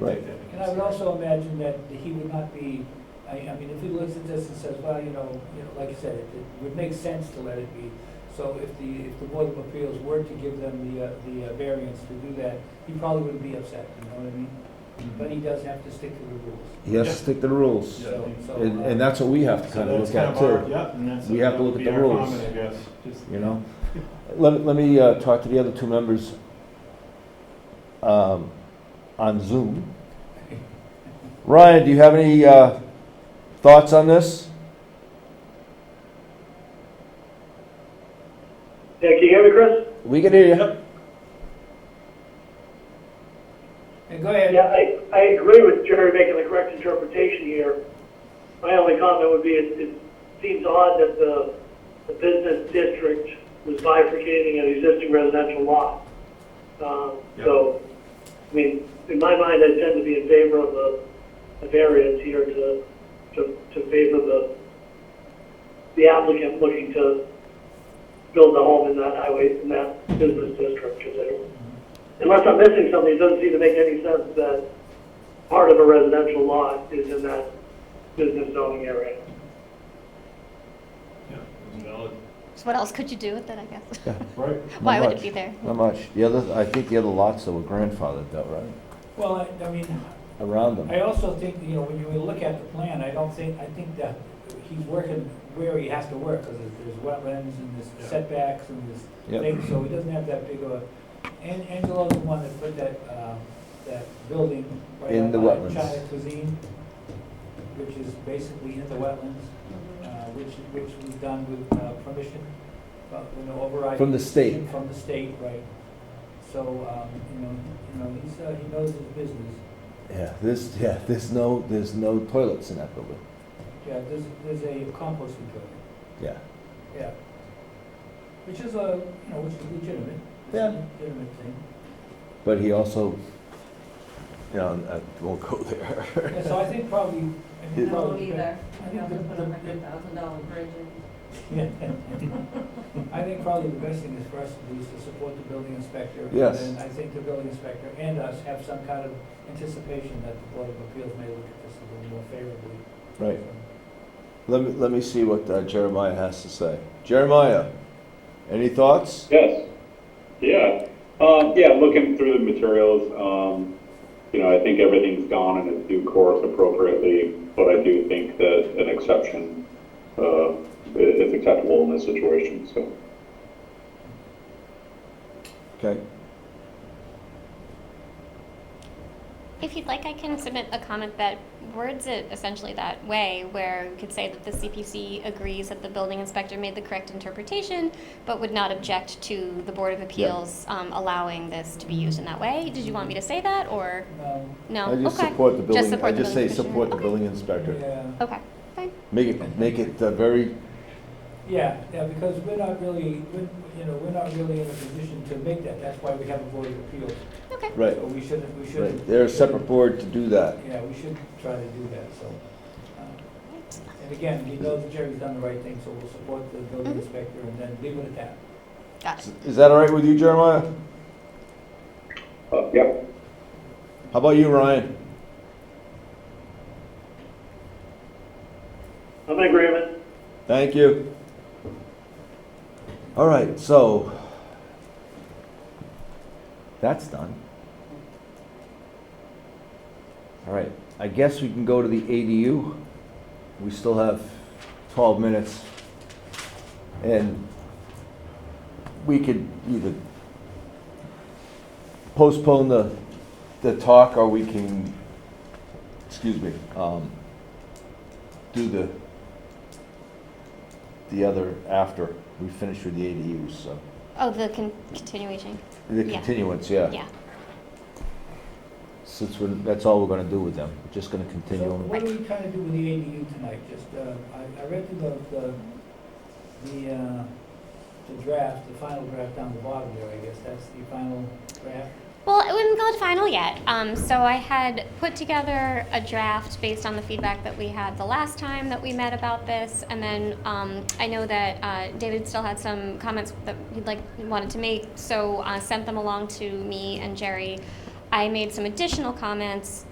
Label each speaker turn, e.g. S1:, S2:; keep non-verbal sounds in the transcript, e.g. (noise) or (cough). S1: Right.
S2: And I would also imagine that he would not be, I, I mean, if he looks at this and says, well, you know, you know, like I said, it, it would make sense to let it be. So if the, if the Board of Appeals were to give them the, uh, the uh, variance to do that, he probably wouldn't be upset, you know what I mean? But he does have to stick to the rules.
S1: He has to stick to the rules.
S3: Yeah.
S2: So, so,
S1: And,
S2: uh,
S1: and that's what we have to
S3: So
S1: kind of
S3: that's
S1: look
S3: kind
S1: at
S3: of our,
S1: too,
S3: yep, and that's.
S1: We have to
S3: that
S1: look
S3: would
S1: at
S3: be
S1: the
S3: our
S1: rules.
S3: comment, I guess, just.
S1: you know? Let, let me, uh, talk to the other two members, um,
S3: (laughs)
S1: on Zoom. Ryan, do you have any, uh, thoughts on this?
S4: Yeah, can you hear me, Chris?
S1: We can hear you.
S2: And go ahead.
S4: Yeah, I, I agree with Jerry making the correct interpretation here. My only comment would be, it, it seems odd that the, the business district was bifurcating an existing residential lot. Um, so, I mean, in my mind, I tend to be in favor of the, the variance here to, to, to favor the, the applicant looking to build a home in that highway, in that business district, because I don't unless I'm missing something, it doesn't seem to make any sense that part of a residential lot is in that business zoning area.
S3: Yeah, it's valid.
S5: So what else could you do with it, I guess? (laughs)
S3: Right.
S1: Not
S5: Why would
S1: much.
S5: it be there?
S1: Not much. The other, I think the other lots that were grandfathered though, right?
S2: Well, I, I mean,
S1: Around them.
S2: I also think, you know, when you look at the plan, I don't think, I think that he's working where he has to work, because there's wetlands and
S3: Yeah.
S2: there's setbacks and there's
S1: Yep.
S2: thing, so he doesn't have that big of a, An- Angelo's the one that put that, um, that building right
S1: In
S2: up
S1: the
S2: by
S1: wetlands.
S2: China Cuisine, which is basically in the wetlands, uh, which, which was done with uh, permission, uh, you know, override.
S1: From the state.
S2: From the state, right. So, um, you know, you know, he's, uh, he knows his business.
S1: Yeah, this, yeah, there's no, there's no toilets in that building.
S2: Yeah, there's, there's a composting building,
S1: Yeah.
S2: yeah. Which is a, you know, which is legitimate. It's a
S1: Yeah.
S2: Legitimate thing.
S1: But he also, you know, I won't go there. (laughs)
S2: Yeah, so I think probably. I
S1: It-
S2: think
S6: I
S2: probably-
S6: don't either.
S2: I
S6: I'd
S2: think
S6: have
S2: the-
S6: to put a
S2: the-
S6: hundred thousand dollar bridge in.
S2: Yeah. (laughs) I think probably the best thing is for us to do is to support the building inspector.
S1: Yes.
S2: And then I think the building inspector and us have some kind of anticipation that the Board of Appeals may look at this a little more favorably.
S1: Right. Let me, let me see what uh, Jeremiah has to say. Jeremiah, any thoughts?
S7: Yes, yeah, um, yeah, looking through the materials, um, you know, I think everything's gone in its due course appropriately, but I do think that an exception, uh, i- is acceptable in this situation, so.
S1: Okay.
S5: If you'd like, I can submit a comment that words it essentially that way, where we could say that the CPC agrees that the building inspector made the correct interpretation, but would not object to the Board of Appeals um, allowing this to be used in that way. Did you want me to say that, or
S2: Um,
S5: no?
S1: I just
S5: Okay.
S1: support the
S5: Just
S1: building, I
S5: support the
S1: just say
S5: building commissioner.
S1: support the
S5: Okay.
S1: building inspector.
S2: Yeah,
S5: Okay, fine.
S1: Make it, make it uh, very,
S2: yeah, yeah, because we're not really, we're- you know, we're not really in a position to make that. That's why we have a Board of Appeals.
S5: Okay.
S1: right,
S2: So we shouldn't, we shouldn't.
S1: right. They're a separate
S2: shouldn't-
S1: board to do that.
S2: Yeah, we should try to do that, so. uh, And again, we know that Jerry's done the right thing, so we'll support the building
S5: Mhm.
S2: inspector and then leave it at that.
S5: Got it.
S1: Is that all right with you, Jeremiah?
S7: Uh, yeah,
S1: How about you, Ryan?
S4: I'm in agreement.
S1: Thank you. All right, so that's done. All right, I guess we can go to the ADU. We still have 12 minutes. And we could either postpone the, the talk or we can, excuse me, um, do the the other after we finish with the ADUs, so.
S5: Oh, the con- continuation.
S1: The
S5: Yeah.
S1: continuance, yeah.
S5: Yeah.
S1: Since we're, that's all we're gonna do with them, we're just gonna continue
S2: So
S1: them.
S2: what are we trying to do with the ADU tonight? Just, uh, I, I read through the, the, the, uh, the draft, the final draft down the bottom there, I guess, that's the final draft.
S5: Well, it wouldn't go to final yet. Um, so I had put together a draft based on the feedback that we had the last time that we met about this, and then um, I know that uh, David still had some comments that he'd like wanted to make, so uh, sent them along to me and Jerry. I made some additional comments